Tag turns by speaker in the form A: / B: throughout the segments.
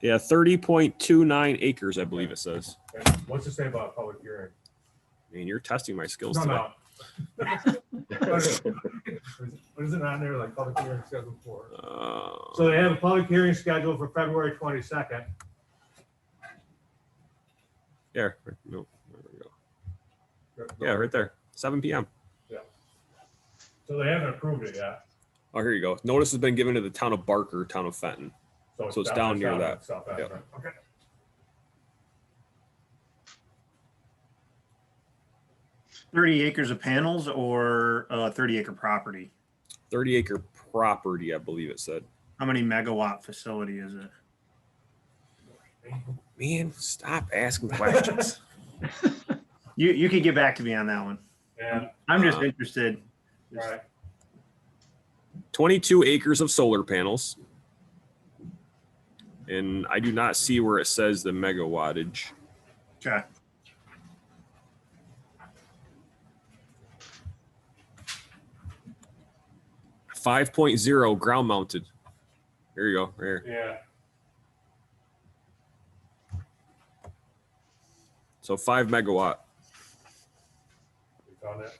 A: Yeah, thirty point two nine acres, I believe it says.
B: And What's it say about a public hearing?
A: Man, you're testing my skills
B: No,
A: today.
B: no. What is it on there, like public hearing scheduled for?
A: Uh,
B: So they have a public hearing scheduled for February twenty-second.
A: there, no, there we go. Yeah, right there, seven PM.
B: So they haven't approved it yet.
A: Oh, here you go. Notice has been given to the town of Barker, town of Fenton. So it's down near that.
B: South Africa. Okay.
C: Thirty acres of panels or uh, thirty acre property?
A: Thirty acre property, I believe it said.
C: How many megawatt facility is it?
A: Man, stop asking questions.
C: You you could get back to me on that one.
B: Yeah,
C: I'm just
A: Uh,
C: interested. Just-
B: right.
A: Twenty-two acres of solar panels. And I do not see where it says the megawattage.
C: Okay.
A: Five point zero ground mounted. Here you go, right here.
B: Yeah,
A: So five megawatt.
B: you found that?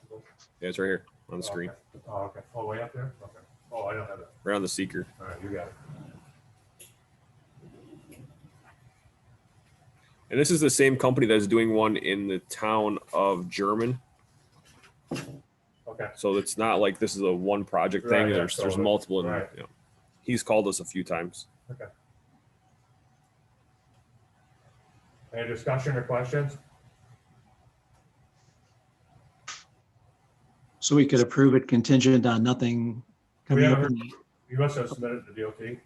A: Yeah, it's right here on the screen,
B: Okay. Oh, okay. Oh, way up there? Okay. Oh, I don't have it.
A: right on the seeker.
B: All right, you got it.
A: And this is the same company that is doing one in the town of German.
B: Okay.
A: So it's not like this is a one project
B: Right,
A: thing.
B: yeah,
A: There's, there's
B: totally.
A: multiple. in
B: Right.
A: you know. He's called us a few times.
B: Any discussion or questions?
D: So we could approve it contingent on nothing
B: We
D: coming up.
B: haven't- You must have submitted to DOT.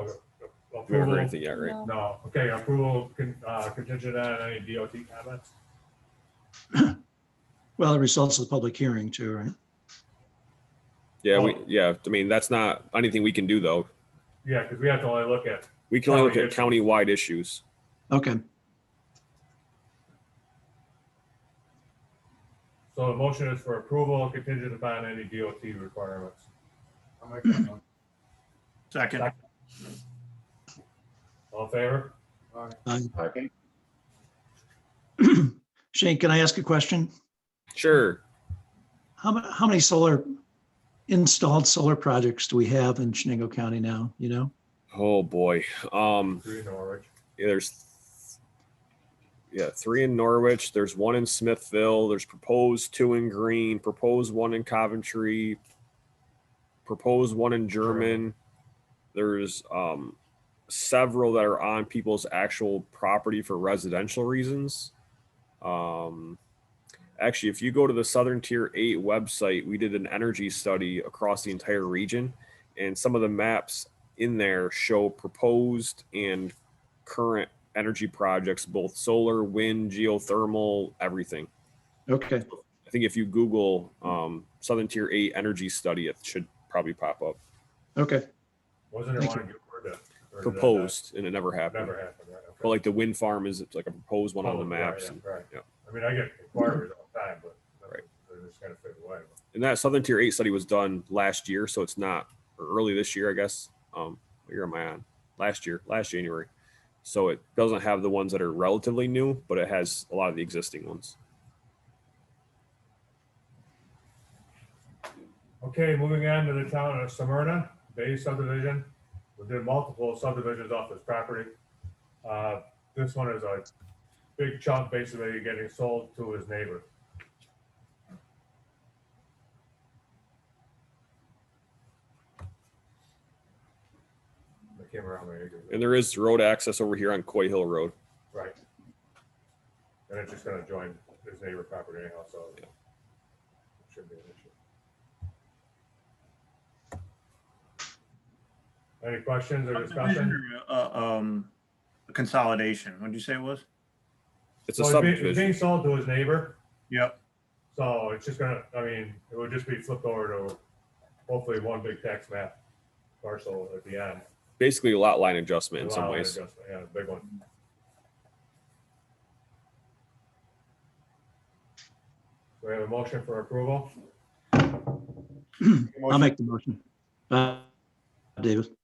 A: We haven't heard
B: approval,
A: anything yet, right?
B: no, okay, approval con- uh, contingent on any DOT comments?
D: Well, it results of the public hearing too, right?
A: Yeah,
B: Oh.
A: we, yeah. I mean, that's not anything we can do though.
B: Yeah, because we have to only look at,
A: We can only look at
B: County
A: countywide issues.
D: Okay,
B: so the motion is for approval contingent upon any DOT requirements.
C: Second.
B: All in favor?
D: Shane, can I ask a question?
A: Sure.
D: How, mu- how many solar, installed solar projects do we have in Shenango County now, you know?
A: Oh boy. Um,
B: Three in Norwich.
A: yeah, there's yeah, three in Norwich. There's one in Smithville. There's proposed two in Green. Proposed one in Coventry. Proposed one in German. There's um several that are on people's actual property for residential reasons. Um, actually, if you go to the Southern Tier 8 website, we did an energy study across the entire region, and some of the maps in there show proposed and current energy projects, both solar, wind, geothermal, everything.
D: Okay,
A: I think if you Google um, Southern Tier 8 energy study, it should probably pop up.
D: okay,
B: Wasn't there
D: Thank
B: one in Newport that- or did that
A: Proposed, and it never
B: not-
A: happened.
B: Never happened, right? okay.
A: But like the wind farm is it's like a proposed one on the
B: Oh, right,
A: maps.
B: yeah, Right,
A: yeah.
B: I mean, I get inquiries all the time, but
A: Right.
B: they're just kind of fade away.
A: and that Southern Tier Eight study was done last year, so it's not or early this year, I guess. Um, what year am I on? Last year, last January. So it doesn't have the ones that are relatively new, but it has a lot of the existing ones.
B: Okay, moving on to the town of Smyrna, Bay subdivision. We did multiple subdivisions off this property. Uh, This one is a big chunk basically getting sold to his neighbor. The camera on there,
A: And there is road access over here on Coy Hill Road.
B: right. And it's just gonna join his neighbor property anyhow, so. it Shouldn't be an issue. Any questions or discussion?
C: Subdivision or, uh, um, Consolidation, what'd you say it was?
A: It's a
B: Well, being-
A: subdivision.
B: Being sold to his neighbor,
C: Yep.
B: so it's just gonna, I mean, it would just be flipped over to hopefully one big tax map parcel at the end.
A: Basically, a lot line adjustment in
B: Lot
A: some
B: line
A: ways.
B: adjustment, Yeah, big one. We have a motion for approval?
D: I'll make the motion. Uh, David,